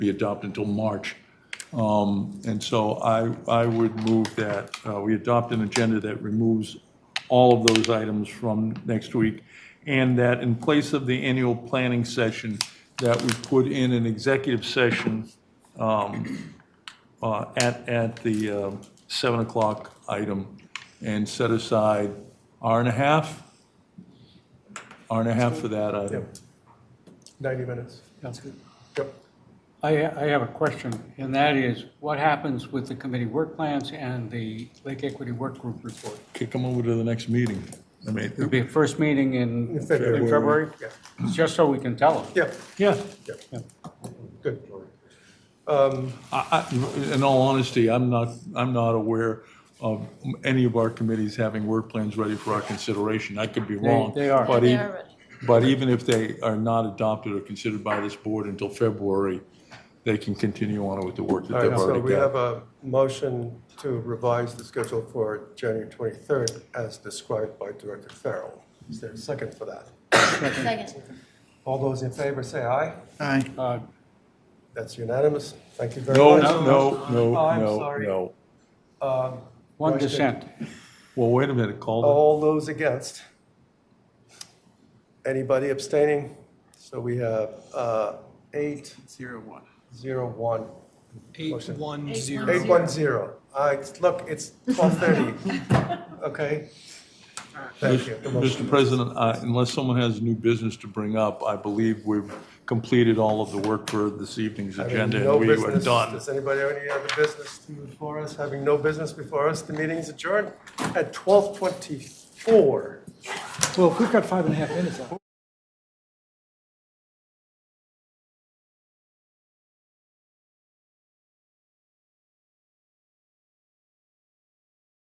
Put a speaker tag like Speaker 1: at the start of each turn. Speaker 1: be adopted until March. Um, And so I, I would move that uh, we adopt an agenda that removes all of those items from next week, and that in place of the annual planning session, that we put in an executive session um, uh, at, at the uh, 7 o'clock item, and set aside hour and a half, hour and a half for that item.
Speaker 2: 90 minutes.
Speaker 3: Sounds good.
Speaker 2: Yep.
Speaker 3: I, I have a question, and that is, what happens with the committee work plans and the Lake Equity Work Group report?
Speaker 1: Kick them over to the next meeting. I
Speaker 3: It'll
Speaker 1: mean,
Speaker 3: be a first meeting in,
Speaker 2: In
Speaker 3: in
Speaker 2: February.
Speaker 3: February?
Speaker 2: Yeah.
Speaker 3: Just so we can tell them.
Speaker 2: Yeah,
Speaker 1: yeah,
Speaker 2: good.
Speaker 1: I, I, in all honesty, I'm not, I'm not aware of any of our committees having work plans ready for our consideration. I could be wrong.
Speaker 3: they are.
Speaker 1: but
Speaker 4: They
Speaker 1: e-
Speaker 4: are ready.
Speaker 1: But even if they are not adopted or considered by this board until February, they can continue on with the work that
Speaker 2: All
Speaker 1: they've
Speaker 2: right, so
Speaker 1: already
Speaker 2: we have
Speaker 1: got.
Speaker 2: a motion to revise the schedule for January 23rd as described by Director Farrell. Is there a second for that?
Speaker 4: Second.
Speaker 2: All those in favor say aye.
Speaker 5: Aye.
Speaker 3: Uh,
Speaker 2: That's unanimous. Thank you very
Speaker 1: No,
Speaker 2: much.
Speaker 1: no, no,
Speaker 2: Oh, I'm
Speaker 1: no,
Speaker 2: sorry.
Speaker 1: no.
Speaker 3: One
Speaker 2: Question.
Speaker 3: dissent.
Speaker 1: Well, wait a minute, Calder.
Speaker 2: All those against? Anybody abstaining? So we have uh, eight,
Speaker 5: Zero one.
Speaker 2: zero, one.
Speaker 6: Eight
Speaker 2: Motion.
Speaker 6: one
Speaker 4: Eight
Speaker 6: zero.
Speaker 2: Eight, one, zero. Uh, it's- Look, it's 12:30. Okay? Thank you. The motion-
Speaker 1: Mr. President, I- unless someone has new business to bring up, I believe we've completed all of the work for this evening's
Speaker 2: Having
Speaker 1: agenda
Speaker 2: no
Speaker 1: and we are
Speaker 2: business-
Speaker 1: done.
Speaker 2: Does anybody have any other business to before us? Having no business before us, the meeting's adjourned at 12:24.
Speaker 6: Well, if we've got five and a half minutes out.